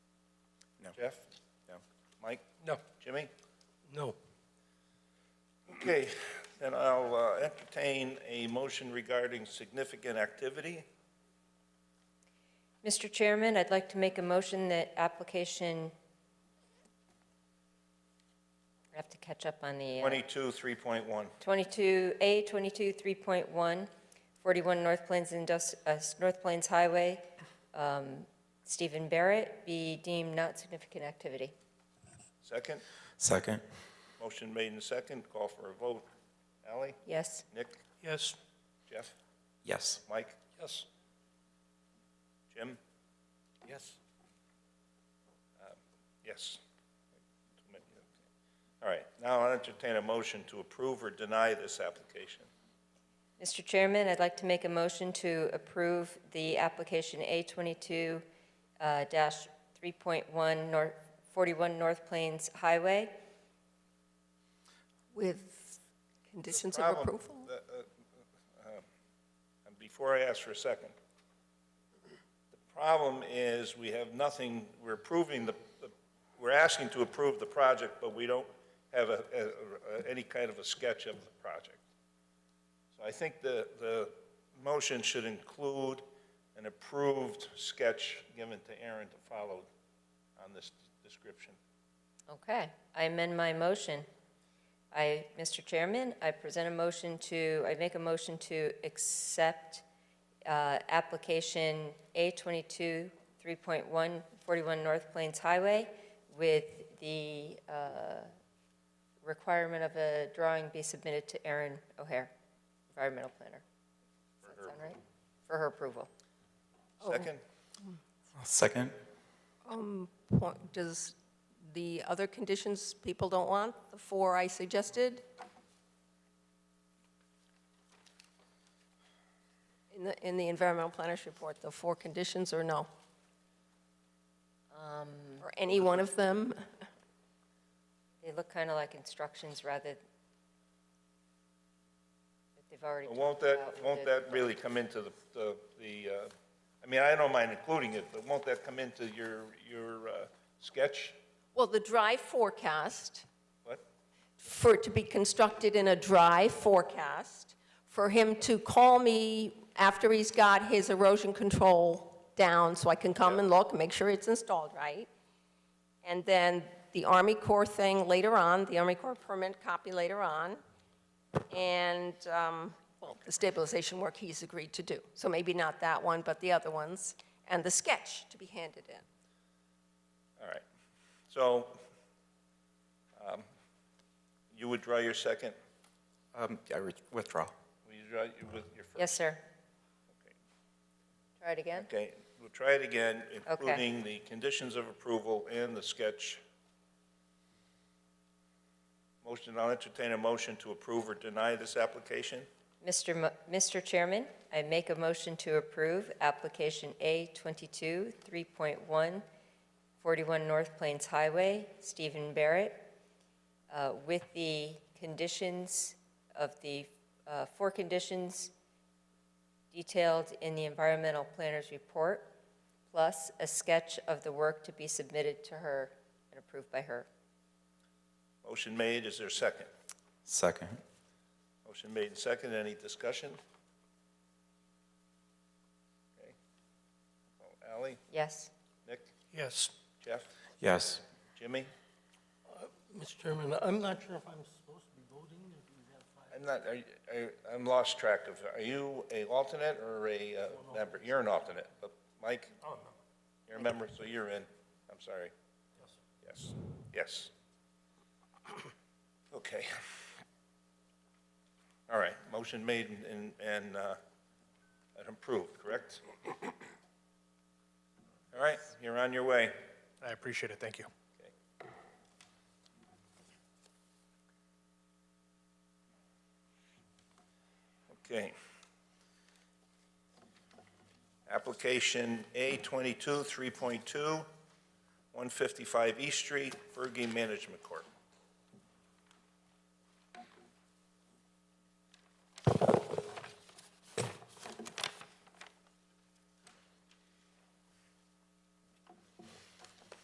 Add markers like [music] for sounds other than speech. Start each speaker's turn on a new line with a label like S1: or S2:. S1: Jeff? No. Mike?
S2: No.
S1: Jimmy?
S2: No.
S1: Okay, then I'll uh, entertain a motion regarding significant activity.
S3: Mr. Chairman, I'd like to make a motion that application, I have to catch up on the. uh,
S1: 22, 3.1.
S3: 22A, 22, 3.1, 41 North Plains Indus, uh, North Plains Highway, um, Stephen Barrett, be deemed not significant activity.
S1: Second?
S4: Second.
S1: Motion made and second. Call for a vote. Ally?
S3: Yes.
S1: Nick?
S2: Yes.
S1: Jeff?
S4: Yes.
S1: Mike?
S2: Yes.
S1: Jim? Um,
S2: Yes.
S1: Yes. All right, now I'll entertain a motion to approve or deny this application.
S3: Mr. Chairman, I'd like to make a motion to approve the application A22-3.1, uh, dash 3.1 Nor- 41 North Plains Highway.
S5: With conditions of
S1: Problem-
S5: approval?
S1: the, uh, uh, and Before I ask for a second, the problem is we have nothing, we're approving the, the- we're asking to approve the project, but we don't have a, a- a- any kind of a sketch of the project. So I think the, the motion should include an approved sketch given to Aaron to follow on this description.
S3: Okay, I amend my motion. I, Mr. Chairman, I present a motion to, I make a motion to accept uh, application A22, 3.1, 41 North Plains Highway with the uh, requirement of a drawing be submitted to Erin O'Hare, environmental planner. Does that sound right? For her approval.
S1: Second?
S4: Second.
S5: Um, point- Does the other conditions people don't want, the four I suggested? In the, in the environmental planner's report, the four conditions or no? Um, Or any one of them?
S3: They look kind of like instructions rather that they've already
S1: Well, Won't
S3: talked about
S1: that,
S3: with
S1: won't
S3: the-
S1: that really come into the, the, the, uh, I mean, I don't mind including it, but won't that come into your, your uh, sketch?
S5: Well, the dry forecast.
S1: What?
S5: for it to be constructed in a dry forecast, for him to call me after he's got his erosion control down, so I can come and look, make sure it's installed right. And then the Army Corps thing later on, the Army Corps permit copy later on, and, um, well, the stabilization work he's agreed to do. So maybe not that one, but the other ones, and the sketch to be handed in.
S1: All right. So, um, you would draw your second,
S4: Um, I re- withdraw.
S1: will you draw your- with your first?
S3: Yes, sir. Try it again?
S1: Okay, we'll try it again,
S3: Okay.
S1: including the conditions of approval and the sketch. Motion, I'll entertain a motion to approve or deny this application.
S3: Mr. Mo- Mr. Chairman, I make a motion to approve application A22, 3.1, 41 North Plains Highway, Stephen Barrett, uh, with the conditions of the, uh, four conditions detailed in the environmental planner's report, plus a sketch of the work to be submitted to her and approved by her.
S1: Motion made, is there a second?
S4: Second.
S1: Motion made and second. Any discussion? Okay. Oh, Ally,
S3: Yes?
S1: Nick,
S2: Yes.
S1: Jeff,
S4: Yes.
S1: Jimmy?
S2: Mr. Chairman, I'm not sure if I'm supposed to be voting. if you have five.
S1: I'm not, are you- are- I'm lost track of, are you a alternate or a uh, member? You're an alternate, but Mike?
S2: Oh, no.
S1: You're a member, so you're in. I'm sorry. Yes. Yes. [clears throat] Okay. All right, motion made and- and, and uh, and approved, correct? All right, you're on your way.
S6: I appreciate it, thank you.
S1: Okay. Application A twenty-two, three point two, one fifty-five East Street, Fergie Management Corp.